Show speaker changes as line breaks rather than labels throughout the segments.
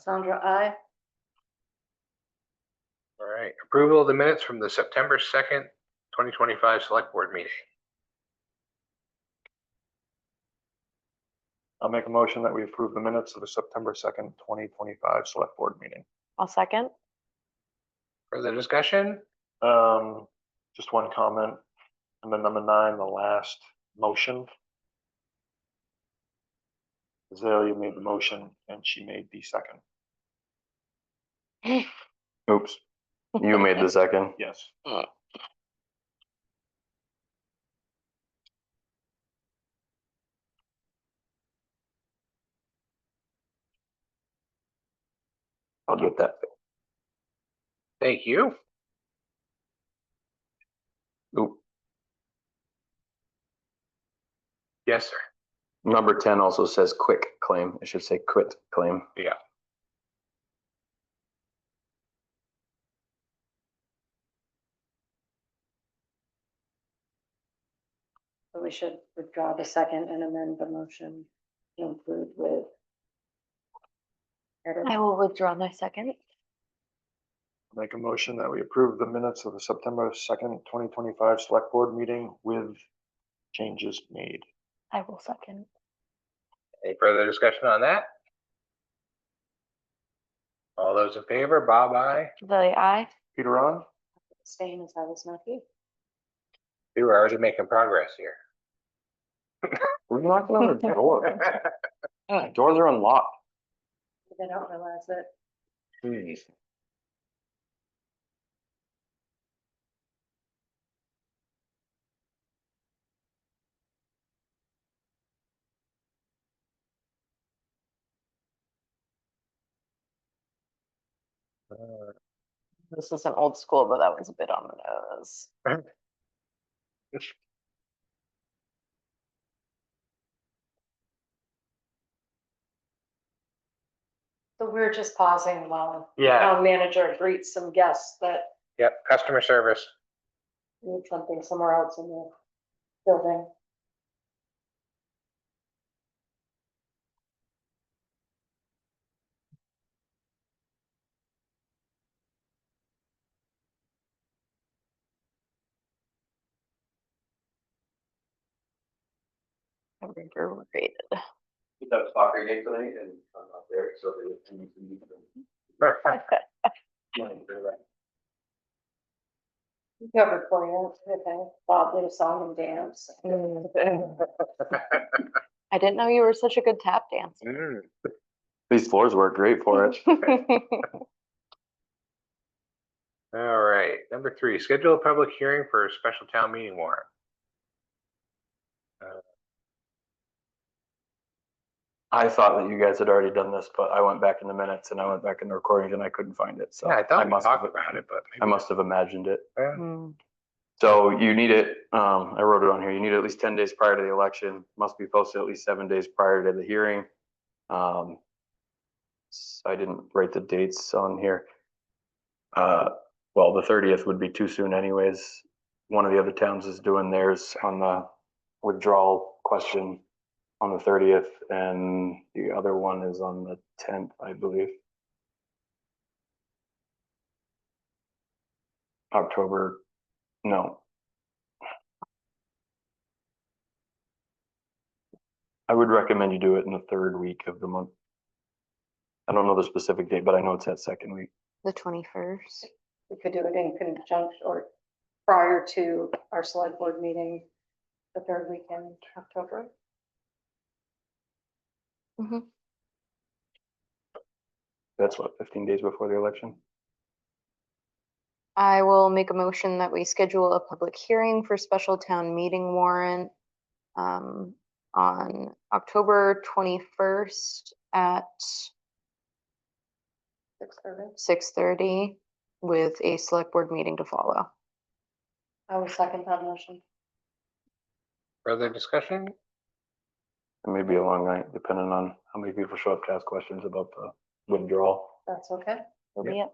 Cassandra, I.
All right, approval of the minutes from the September second, twenty twenty-five select board meeting.
I'll make a motion that we approve the minutes of the September second, twenty twenty-five select board meeting.
I'll second.
Further discussion?
Um, just one comment, and then number nine, the last motion. Azalea made the motion and she made the second.
Oops. You made the second.
Yes.
I'll get that.
Thank you.
Oop.
Yes, sir.
Number ten also says quick claim. It should say quit claim.
So we should withdraw the second and amend the motion to include with. edit.
I will withdraw my second.
Make a motion that we approve the minutes of the September second, twenty twenty-five select board meeting with changes made.
I will second.
Any further discussion on that? All those in favor, Bob, I,
Azalea, I.
Peter on?
Abstain as I was not here.
you are already making progress here.
We're knocking on the door. Yeah, Doors are unlocked.
They don't realize that.
Jeez.
This isn't old school, but that was a bit on the nose.
So we're just pausing while
Yeah,
town manager greets some guests that
Uh, yep, customer service.
need something somewhere else in the building.
I remember created.
We have a soccer game tonight and I'm not there, so they would need to meet them.
We Covered for you, okay, Bob did a song and dance.
I didn't know you were such a good tap dancer.
Mm,
These floors work great for it.
All right, number three, schedule a public hearing for a special town meeting warrant.
I thought that you guys had already done this, but I went back in the minutes and I went back in the recordings and I couldn't find it. So
Oh,
Yeah, I thought we
must
talked
have-
about it, but.
I
maybe-
must have imagined it.
Yeah.
Hmm.
So you need it, um, I wrote it on here, you need it at least ten days prior to the election, must be posted at least seven days prior to the hearing. Um, s- I didn't write the dates on here. Uh, well, the thirtieth would be too soon anyways. One of the other towns is doing theirs on the withdrawal question on the thirtieth, and the other one is on the tenth, I believe. October, no. I would recommend you do it in the third week of the month. I don't know the specific date, but I know it's that second week.
The twenty-first.
We could do it in conjunction or prior to our select board meeting, the third weekend, in October.
Mm-hmm.
That's what, fifteen days before the election?
I will make a motion that we schedule a public hearing for special town meeting warrant um, on October twenty-first at
Six thirty.
six thirty with a select board meeting to follow.
I will second that motion.
Further discussion?
It may be a long night, depending on how many people show up to ask questions about the withdrawal.
That's okay.
Yep.
Yep,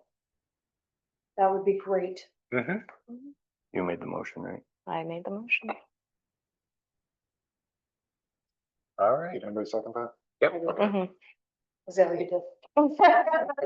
That would be great.
Mm-hmm.
You made the motion, right?
I made the motion.
All right,
Anybody second that?
yep.
I will.
Mhm.
Is that what you did?